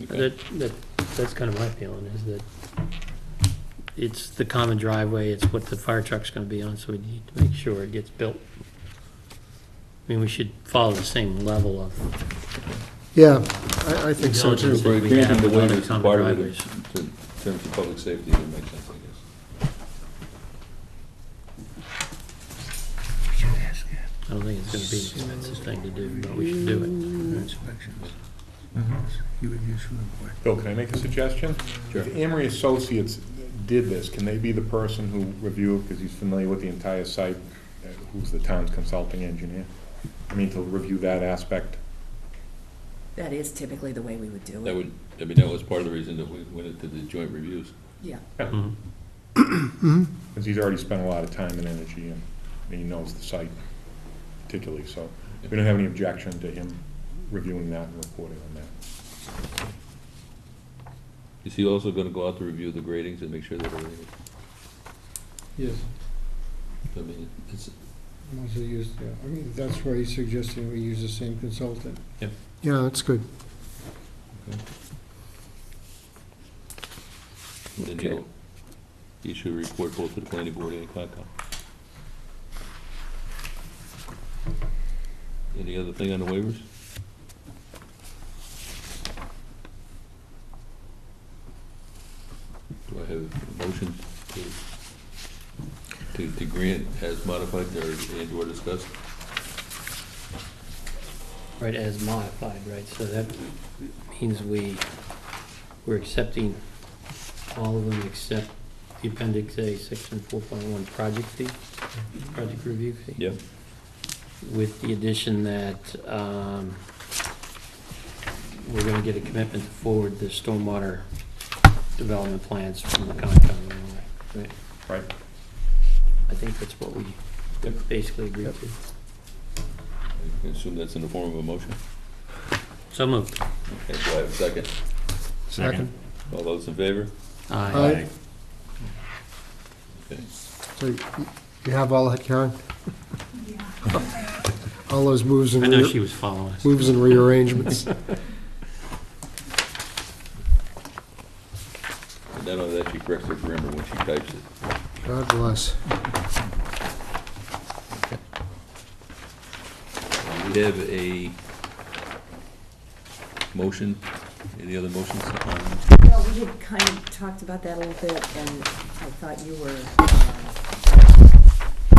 That, that, that's kind of my feeling, is that it's the common driveway, it's what the fire truck's gonna be on, so we need to make sure it gets built. I mean, we should follow the same level of Yeah, I, I think so diligence too. that we Granted, have the with way other it's common part of it driveways. in terms of public safety, it would make sense, I guess. I don't think it's gonna be an expensive thing to do, but we should do it. Mm-hmm. You would use for the Bill, can I make a suggestion? Sure. If Amory Associates did this, can they be the person who review, because he's familiar with the entire site, uh, who's the town's consulting engineer? I mean, to review that aspect. That is typically the way we would do That it. would, I mean, that was part of the reason that we went into the joint reviews. Yeah, Mhm. Because he's already spent a lot of time and energy, and and he knows the site particularly, so we don't have any objection to him reviewing that and reporting on that. Is he also gonna go out to review the gradings and make sure that everything, Yes, I mean, it's, once they use, yeah, I mean, that's why he's suggesting we use the same consultant. Yeah, that's good. then he'll, he should report both to the planning board and Concom. Any other thing on the waivers? Do I have a motion to, to, to grant as modified or, and or discussed? Right, as modified, right, so that means we, we're accepting all of them except the appendix A, section four point one, project fee, project review fee. Yep. with the addition that um, we're going to get a commitment to forward the stormwater development plans from the Concom. anyway. Right? I think that's what we Yep. basically agreed to. I assume that's in the form of a motion? So moved. Okay, do I have a second? Second. All those in favor? Aye. Aye. Okay. So you you have all that, Karen? All those moves and, I know rea- she was following us. moves and rearrangements. And then I'll actually correct her grammar when she types it. God bless. We have a motion, any other motions? on- well, we had kind of talked about that a little bit, and I thought you were, um,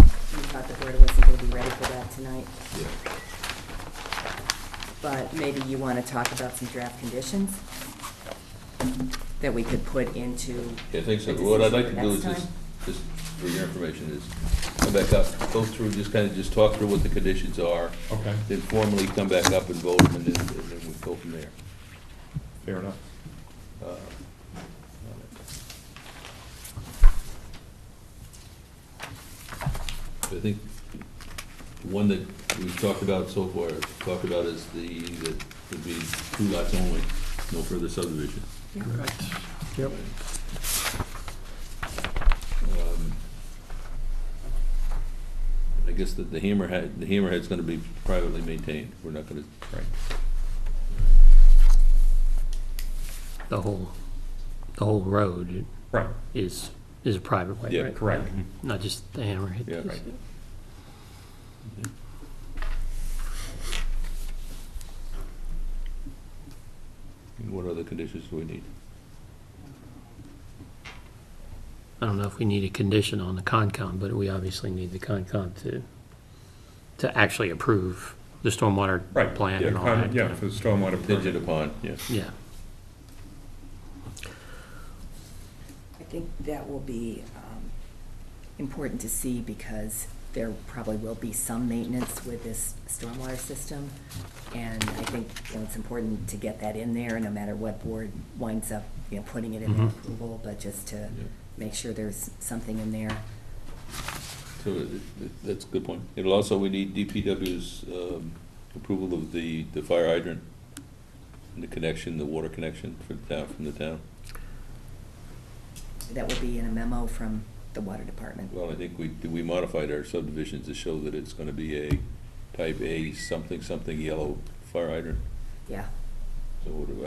you thought the board wasn't gonna be ready for that tonight, but maybe you wanna talk about some draft conditions that we could put into, Yeah, I think so. Like, What I'd like this is to for do is next just, time? just for your information, is come back up, go through, just kind of just talk through what the conditions are, Okay. then formally come back up and vote, and then, and then we go from there. Fair enough. uh, on it. I think the one that we've talked about so far, talked about is the, that would be two lots only, no further subdivision. Yep. Um, I guess that the hammerhead, the hammerhead's gonna be privately maintained, we're not gonna, The whole, the whole road Right. is, is a private way, Yeah, right? correct. Not just the hammerhead. yeah, right. And what other conditions do we need? I don't know if we need a condition on the Concom, but we obviously need the Concom to, to actually approve the stormwater Right, plan yeah, and all that. Yeah, for the stormwater permit. Contingent upon, yes. Yeah. I think that will be um, important to see, because there probably will be some maintenance with this stormwater system, and I think, you know, it's important to get that in there, no matter what board winds up, you know, putting it in their Mhm. approval, but just to Mm-hmm. Yeah. make sure there's something in there. So it- it- that's a good point. It'll also, we need DPW's um, approval of the, the fire hydrant and the connection, the water connection for the town, from the town. That will be in a memo from the water department. Well, I think we, we modified our subdivisions to show that it's gonna be a type A something, something yellow fire hydrant. Yeah. So what do I-